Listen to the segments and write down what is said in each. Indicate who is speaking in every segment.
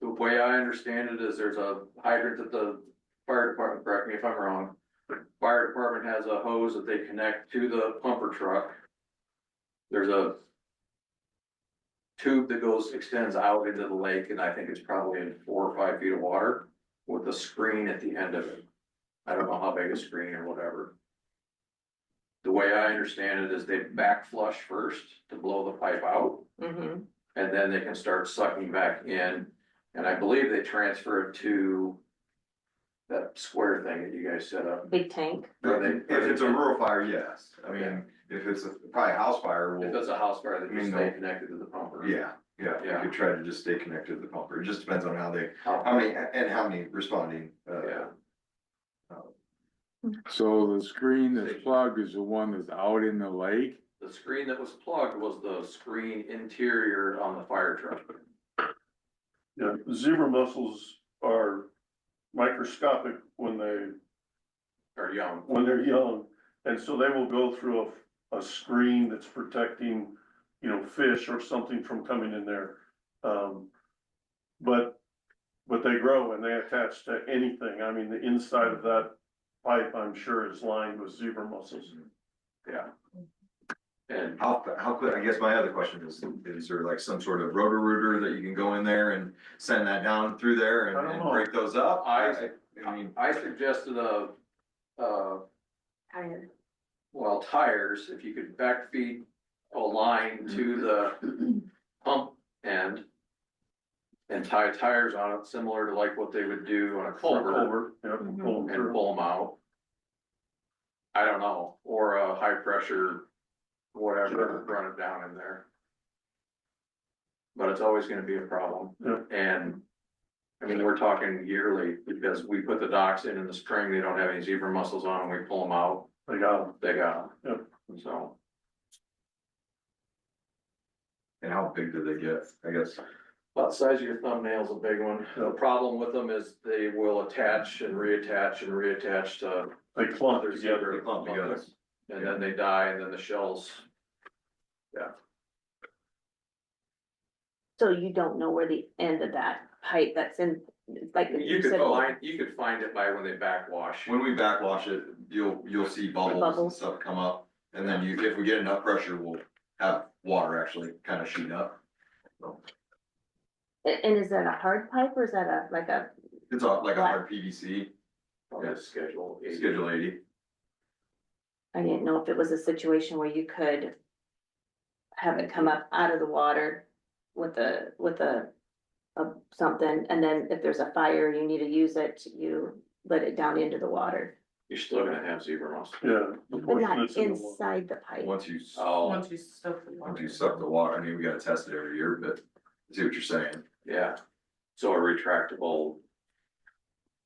Speaker 1: way I understand it is there's a hydrant that the fire department, correct me if I'm wrong. Fire department has a hose that they connect to the pumper truck. There's a. Tube that goes, extends out into the lake, and I think it's probably in four or five feet of water with a screen at the end of it. I don't know how big a screen or whatever. The way I understand it is they back flush first to blow the pipe out.
Speaker 2: Mhm.
Speaker 1: And then they can start sucking back in, and I believe they transfer it to. That square thing that you guys set up,
Speaker 2: Big tank.
Speaker 1: Or they-
Speaker 3: If it's a rural fire, yes, I mean, if it's a, probably a house fire,
Speaker 1: if
Speaker 3: well,
Speaker 1: it's a house fire, they can
Speaker 3: Mm,
Speaker 1: stay
Speaker 3: no.
Speaker 1: connected to the pumper.
Speaker 3: yeah, yeah,
Speaker 1: Mm-hmm. Yeah.
Speaker 3: you could try to just stay connected to the pumper, it just depends on how they,
Speaker 1: How-
Speaker 3: how many, and how many responding, uh,
Speaker 1: Yeah,
Speaker 4: So the screen that's plugged is the one that's out in the lake?
Speaker 1: the screen that was plugged was the screen interior on the fire truck.
Speaker 5: Yeah, zebra mussels are microscopic when they,
Speaker 1: Or young,
Speaker 5: when they're young. And so they will go through a, a screen that's protecting, you know, fish or something from coming in there. Um, but, but they grow and they attach to anything. I mean, the inside of that pipe, I'm sure, is lined with zebra mussels.
Speaker 1: and
Speaker 3: how, how quick, I guess my other question is, is there like some sort of rotor rooter that you can go in there and send that down through there
Speaker 5: I don't
Speaker 3: and, and
Speaker 5: know.
Speaker 3: break those up?
Speaker 1: I-
Speaker 3: I mean,
Speaker 1: I suggested a, uh, well, tires, if you could backfeed a line to the pump end. And tie tires on it, similar to like what they would do on a culvert
Speaker 5: Culvert, yeah,
Speaker 2: Mhm.
Speaker 5: pull them
Speaker 1: and
Speaker 5: through.
Speaker 1: pull them out. I don't know, or a high pressure, whatever, run it down in there. But it's always gonna be a problem.
Speaker 5: Yeah.
Speaker 1: And, I mean, we're talking yearly, because we put the docks in in the spring, they don't have any zebra mussels on, and we pull them out,
Speaker 5: They got 'em.
Speaker 1: they got
Speaker 5: Yeah.
Speaker 1: them. So,
Speaker 3: and how big do they get, I guess?
Speaker 1: about the size of your thumbnail's a big one. The problem with them is they will attach and reattach and reattach to
Speaker 5: They clump
Speaker 1: others
Speaker 5: together.
Speaker 3: They clump together.
Speaker 1: And then they die, and then the shells
Speaker 2: So you don't know where the end of that pipe that's in, like.
Speaker 1: You could
Speaker 2: said,
Speaker 1: find, you could find it by when they backwash.
Speaker 3: When we backwash it, you'll, you'll see bubbles and
Speaker 2: Bubbles.
Speaker 3: stuff come up, and then you, if we get enough pressure, we'll have water actually kind of shoot up.
Speaker 2: a- And is that a hard pipe or is that a, like a,
Speaker 3: It's all like a hard PVC,
Speaker 1: On the schedule. eight.
Speaker 3: Schedule eighty,
Speaker 2: I didn't know if it was a situation where you could. Have it come up out of the water with a, with a, a something, and then if there's a fire, you need to use it, you let it down into the water.
Speaker 1: You're still gonna have zebra mussels.
Speaker 5: Yeah. the
Speaker 2: But
Speaker 5: portion
Speaker 2: not
Speaker 5: that's in the water.
Speaker 2: inside the pipe.
Speaker 3: once you, s-
Speaker 1: Oh,
Speaker 6: Once you stuff the
Speaker 3: once
Speaker 6: water.
Speaker 3: you suck the water, I mean, we gotta test it every year, but I see what you're saying.
Speaker 1: yeah. So a retractable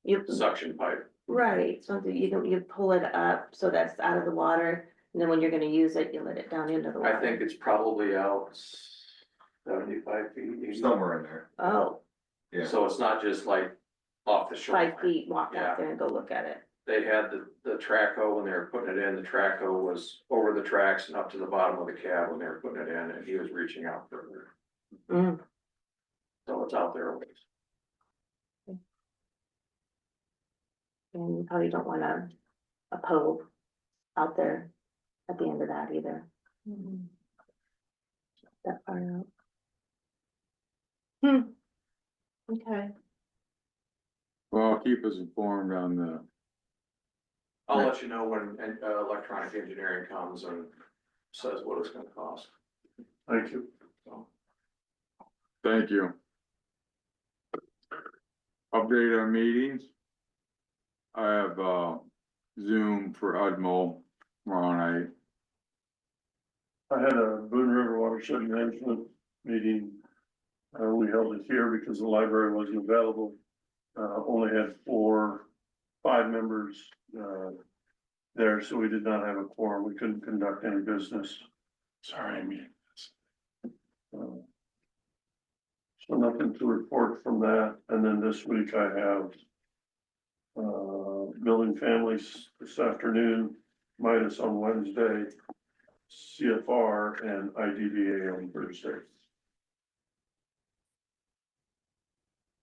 Speaker 2: You,
Speaker 1: suction pipe.
Speaker 2: right, so that you don't, you pull it up, so that's out of the water, and then when you're gonna use it, you let it down into the water.
Speaker 1: I think it's probably out seventy-five feet. 80.
Speaker 3: Somewhere in there,
Speaker 2: Oh,
Speaker 3: yeah.
Speaker 1: So it's not just like off the
Speaker 2: five
Speaker 1: shoreline.
Speaker 2: feet, walk
Speaker 1: Yeah.
Speaker 2: out there and go look at it.
Speaker 1: They had the, the track hoe when they were putting it in, the track hoe was over the tracks and up to the bottom of the cab when they were putting it in, and he was reaching out further.
Speaker 2: Mm.
Speaker 1: So it's out there a ways.
Speaker 2: And you probably don't want a, a pole out there at the end of that either, Mm-hmm.
Speaker 6: Mhm.
Speaker 2: that far out. Hmm. Okay.
Speaker 4: Well, keep us informed on the,
Speaker 1: I'll
Speaker 4: Right.
Speaker 1: let you know when uh, electronic engineering comes and says what it's gonna cost.
Speaker 5: Thank you.
Speaker 4: thank you. Update on meetings. I have, uh, Zoom for Udmo tomorrow night.
Speaker 5: I had a Boone River Watershed Management meeting. Uh, we held it here because the library wasn't available. Uh, only had four, five members, uh, there, so we did not have a quorum. We couldn't conduct any business.
Speaker 4: Sorry, I mean.
Speaker 5: Uh, So nothing to report from that. And then this week I have uh, building families this afternoon, Midas on Wednesday, CFR and IDBA on Thursday.